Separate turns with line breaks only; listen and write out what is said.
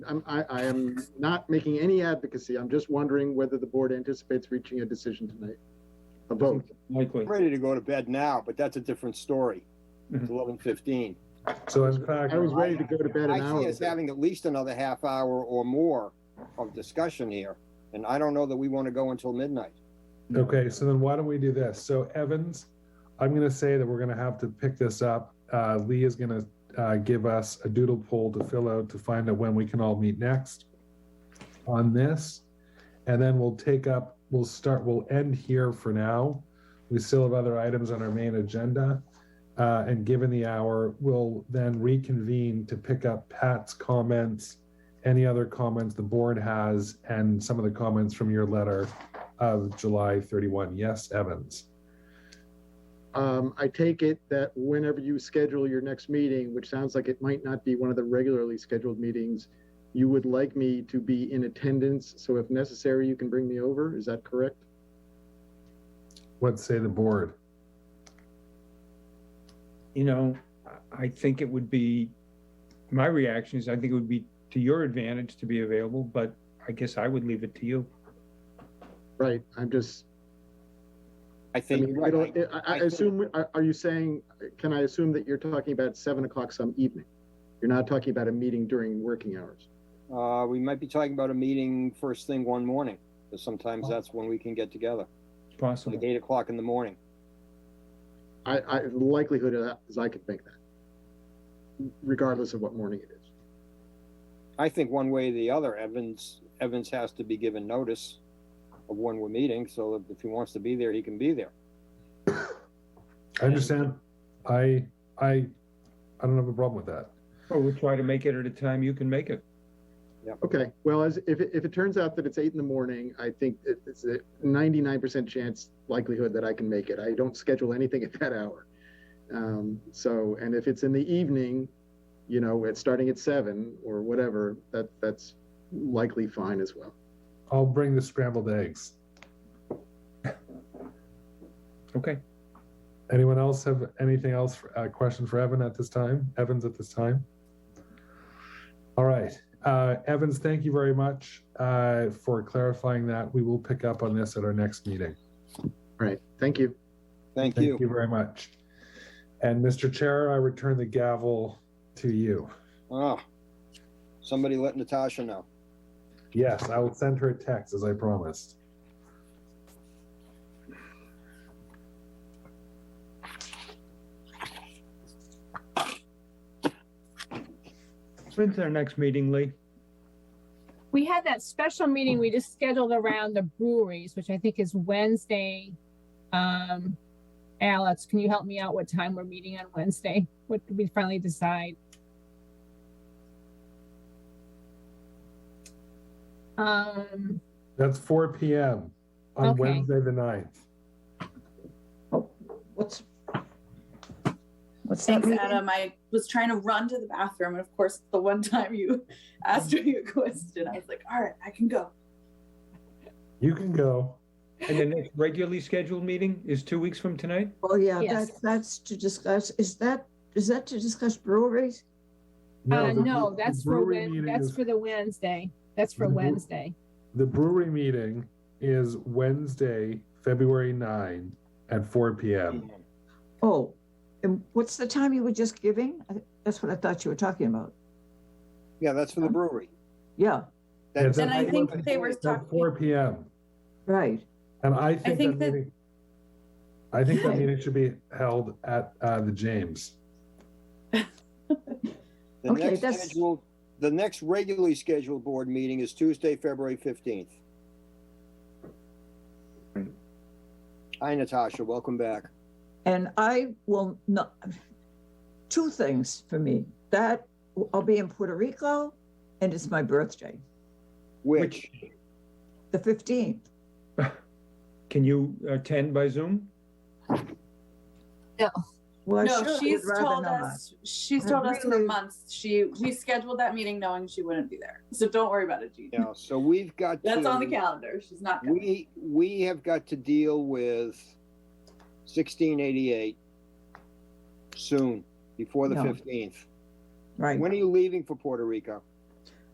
I'm, I, I am not making any advocacy. I'm just wondering whether the board anticipates reaching a decision tonight. A vote.
Likely.
I'm ready to go to bed now, but that's a different story. It's eleven fifteen.
So in fact,
I was ready to go to bed an
I
hour
see us
ago.
having at least another half hour or more of discussion here, and I don't know that we want to go until midnight.
okay, so then why don't we do this? So Evans, I'm gonna say that we're gonna have to pick this up. Uh, Lee is gonna, uh, give us a doodle poll to fill out to find out when we can all meet next on this. And then we'll take up, we'll start, we'll end here for now. We still have other items on our main agenda. Uh, and given the hour, we'll then reconvene to pick up Pat's comments, any other comments the board has, and some of the comments from your letter of July 31. Yes, Evans.
Um, I take it that whenever you schedule your next meeting, which sounds like it might not be one of the regularly scheduled meetings, you would like me to be in attendance, so if necessary, you can bring me over. Is that correct?
What say the board?
You know, I- I think it would be, my reaction is I think it would be to your advantage to be available, but I guess I would leave it to you.
Right, I'm just,
I
I
think,
mean, I don't, I, I
I think-
assume, are, are you saying, can I assume that you're talking about seven o'clock some evening? You're not talking about a meeting during working hours?
uh, we might be talking about a meeting first thing one morning, because sometimes
Oh.
that's when we can get together,
It's
like
possible.
eight o'clock in the morning.
I, I, the likelihood of that is I could make that, regardless of what morning it is.
I think one way or the other, Evans, Evans has to be given notice of when we're meeting, so that if he wants to be there, he can be there.
I understand. I, I, I don't have a problem with that.
Or we'll try to make it at a time you can make it.
Okay, well, as, if, it- if it turns out that it's eight in the morning, I think it- it's a ninety-nine percent chance likelihood that I can make it. I don't schedule anything at that hour. Um, so, and if it's in the evening, you know, it's starting at seven or whatever, that, that's likely fine as well.
I'll bring the scrambled eggs.
Okay.
Anyone else have anything else, for- uh, question for Evan at this time? Evans at this time? All right. Uh, Evans, thank you very much uh, for clarifying that. We will pick up on this at our next meeting.
All right, thank you.
Thank
Thank
you.
you very much. And Mr. Chair, I return the gavel to you.
Ah, somebody let Natasha know.
Yes, I will send her a text as I promised.
When's our next meeting, Lee?
We had that special meeting we just scheduled around the breweries, which I think is Wednesday. Um, Alex, can you help me out what time we're meeting on Wednesday? What did we finally decide? Um,
That's 4 p.m. on
Okay.
Wednesday the 9th.
What's? What's that
Thanks,
meeting?
Adam. I was trying to run to the bathroom, and of course, the one time you asked me a question, I was like, "All right, I can go."
You can go.
And the next regularly scheduled meeting is two weeks from tonight?
Oh, yeah,
Yes.
that's, that's to discuss, is that, is that to discuss breweries?
uh,
the-
no,
the
that's for,
brewery
Wed-
meeting
that's
is-
for the Wednesday. That's for
The bre-
Wednesday.
The brewery meeting is Wednesday, February 9 at 4 p.m.
Oh, and what's the time you were just giving? I- That's what I thought you were talking about.
Yeah, that's for the brewery.
Yeah,
That's-
And I
think they were
At 4 p.m.
right.
And I think,
think
that,
that-
meeting, I think that meeting should be held at uh, the James.
The
Okay,
next
that's-
scheduled, the next regularly scheduled board meeting is Tuesday, February fifteenth. Hi, Natasha, welcome back.
And I will not, two things for me, that I'll be in Puerto Rico and it's my birthday,
Which,
the 15th.
Can you attend by Zoom?
Well, I
no,
sure
she's
would rather
told
not.
us. She's
I
told us for
really-
months. She we scheduled that meeting knowing she wouldn't be there, so don't worry about it, Jean.
yeah, so we've got.
That's
to-
on the calendar. She's not coming.
We, we have got to deal with sixteen eighty-eight soon, before the
No.
fifteenth.
Right.
When are you leaving for Puerto Rico?